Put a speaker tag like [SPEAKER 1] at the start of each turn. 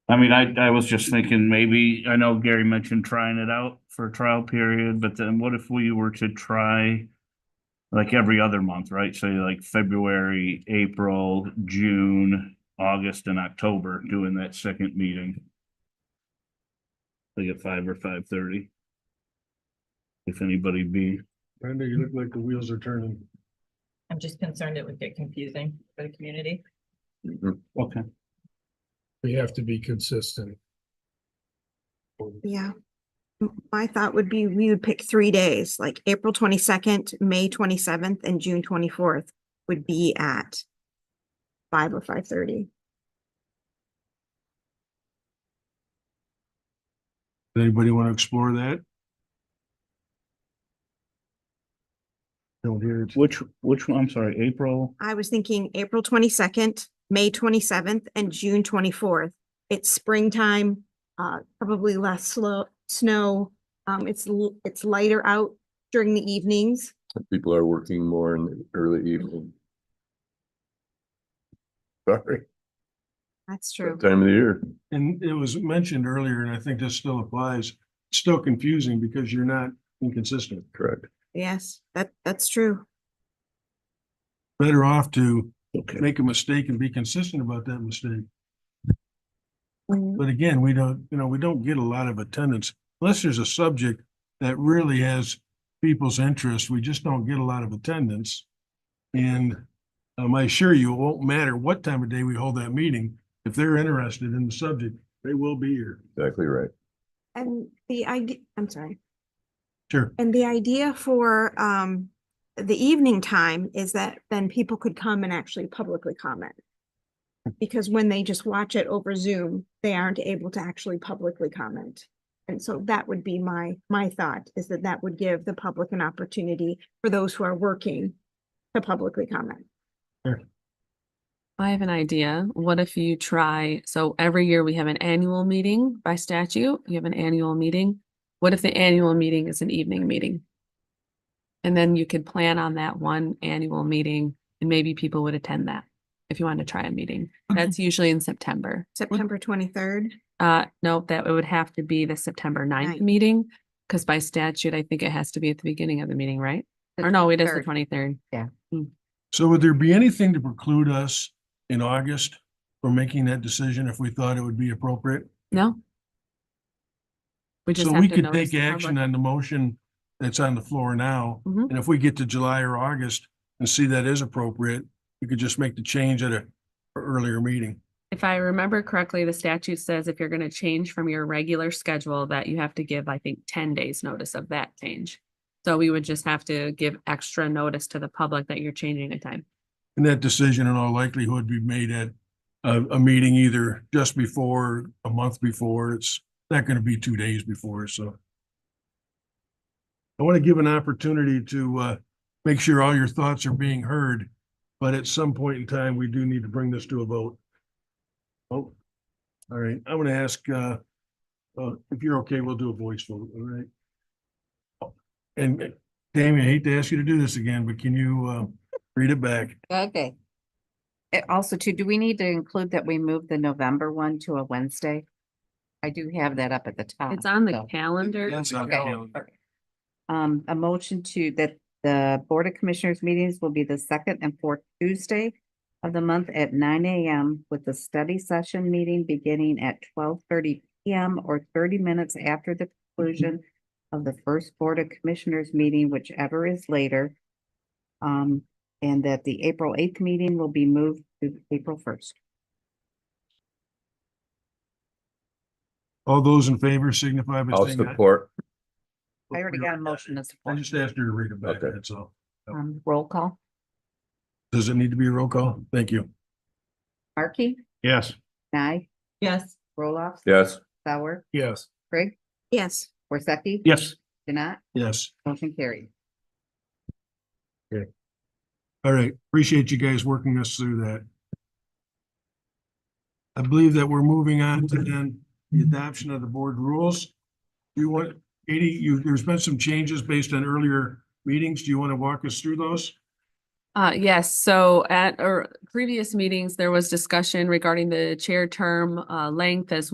[SPEAKER 1] I mean, I, I was just thinking maybe, I know Gary mentioned trying it out for a trial period, but then what if we were to try? Like every other month, right? So like February, April, June, August and October doing that second meeting. Like at five or five thirty. If anybody be,
[SPEAKER 2] Brenda, you look like the wheels are turning.
[SPEAKER 3] I'm just concerned it would get confusing for the community.
[SPEAKER 1] okay,
[SPEAKER 2] We have to be consistent.
[SPEAKER 4] Yeah. M- My thought would be we would pick three days, like April twenty-second, May twenty-seventh, and June twenty-fourth would be at five or five thirty.
[SPEAKER 2] Anybody want to explore that? Don't hear it.
[SPEAKER 1] which, which one, I'm sorry, April,
[SPEAKER 4] I was thinking April twenty-second, May twenty-seventh, and June twenty-fourth. It's springtime, uh, probably less slow, snow. Um, it's, l- it's lighter out during the evenings.
[SPEAKER 5] People are working more in the early evening. Sorry,
[SPEAKER 4] That's
[SPEAKER 5] that
[SPEAKER 4] true.
[SPEAKER 5] time of the year.
[SPEAKER 2] And it was mentioned earlier, and I think this still applies, it's still confusing because you're not inconsistent.
[SPEAKER 5] Correct.
[SPEAKER 4] Yes, that, that's true.
[SPEAKER 2] Better off to
[SPEAKER 1] okay.
[SPEAKER 2] make a mistake and be consistent about that mistake.
[SPEAKER 4] Mm,
[SPEAKER 2] But again, we don't, you know, we don't get a lot of attendance unless there's a subject that really has people's interest. We just don't get a lot of attendance. And um, I assure you, it won't matter what time of day we hold that meeting. If they're interested in the subject, they will be here.
[SPEAKER 5] Exactly right.
[SPEAKER 4] And the idea, I'm sorry.
[SPEAKER 2] Sure.
[SPEAKER 4] And the idea for um the evening time is that then people could come and actually publicly comment. Because when they just watch it over Zoom, they aren't able to actually publicly comment. And so that would be my my thought is that that would give the public an opportunity for those who are working to publicly comment.
[SPEAKER 6] I have an idea. What if you try, so every year we have an annual meeting by statute, you have an annual meeting. What if the annual meeting is an evening meeting? And then you could plan on that one annual meeting and maybe people would attend that if you wanted to try a meeting. That's usually in September.
[SPEAKER 4] September twenty-third,
[SPEAKER 6] Uh, no, that it would have to be the September ninth
[SPEAKER 4] Ninth.
[SPEAKER 6] meeting, because by statute, I think it has to be at the beginning of the meeting, right? Or no, it is the
[SPEAKER 7] third.
[SPEAKER 6] twenty-third.
[SPEAKER 2] So would there be anything to preclude us in August from making that decision if we thought it would be appropriate?
[SPEAKER 6] No? We just
[SPEAKER 2] So
[SPEAKER 6] have
[SPEAKER 2] we
[SPEAKER 6] to
[SPEAKER 2] could take
[SPEAKER 6] notice the
[SPEAKER 2] action
[SPEAKER 6] public.
[SPEAKER 2] on the motion that's on the floor now.
[SPEAKER 6] Mhm.
[SPEAKER 2] And if we get to July or August and see that is appropriate, we could just make the change at a earlier meeting.
[SPEAKER 6] If I remember correctly, the statute says if you're gonna change from your regular schedule, that you have to give, I think, ten days notice of that change. So we would just have to give extra notice to the public that you're changing the time.
[SPEAKER 2] And that decision in all likelihood be made at a, a meeting either just before, a month before. It's not going to be two days before, so. I want to give an opportunity to, uh, make sure all your thoughts are being heard. But at some point in time, we do need to bring this to a vote. Oh, all right. I'm going to ask, uh, uh, if you're okay, we'll do a voice vote, all right? And Damien, I hate to ask you to do this again, but can you, uh, read it back?
[SPEAKER 7] Okay. It Eh, also too, do we need to include that we moved the November one to a Wednesday? I do have that up at the top.
[SPEAKER 6] It's on the
[SPEAKER 7] Oh, so-
[SPEAKER 6] calendar.
[SPEAKER 2] That's on
[SPEAKER 7] Okay.
[SPEAKER 2] calendar.
[SPEAKER 7] Okay. Um, a motion to that the Board of Commissioners meetings will be the second and fourth Tuesday of the month at nine AM with the study session meeting beginning at twelve thirty PM or thirty minutes after the conclusion of the first Board of Commissioners meeting, whichever is later. Um, and that the April eighth meeting will be moved to April first.
[SPEAKER 2] All those in favor signify by
[SPEAKER 5] I'll
[SPEAKER 2] saying aye.
[SPEAKER 5] support.
[SPEAKER 7] I already got a motion to
[SPEAKER 2] I
[SPEAKER 7] support.
[SPEAKER 2] just asked her to read it back,
[SPEAKER 5] Okay.
[SPEAKER 2] that's all.
[SPEAKER 7] Um, roll call.
[SPEAKER 2] Does it need to be a roll call? Thank you.
[SPEAKER 7] Markey,
[SPEAKER 1] Yes.
[SPEAKER 7] Nye,
[SPEAKER 3] Yes,
[SPEAKER 7] Roloff.
[SPEAKER 5] Yes,
[SPEAKER 7] Sauer,
[SPEAKER 2] Yes.
[SPEAKER 7] Craig,
[SPEAKER 4] yes.
[SPEAKER 7] Worsakki.
[SPEAKER 1] Yes,
[SPEAKER 7] Janat,
[SPEAKER 2] Yes.
[SPEAKER 7] motion carried.
[SPEAKER 2] All right. Appreciate you guys working us through that. I believe that we're moving on to then the adoption of the board rules. Do you want, Katie, you, there's been some changes based on earlier meetings. Do you want to walk us through those?
[SPEAKER 6] Uh, yes, so at, or previous meetings, there was discussion regarding the chair term, uh, length as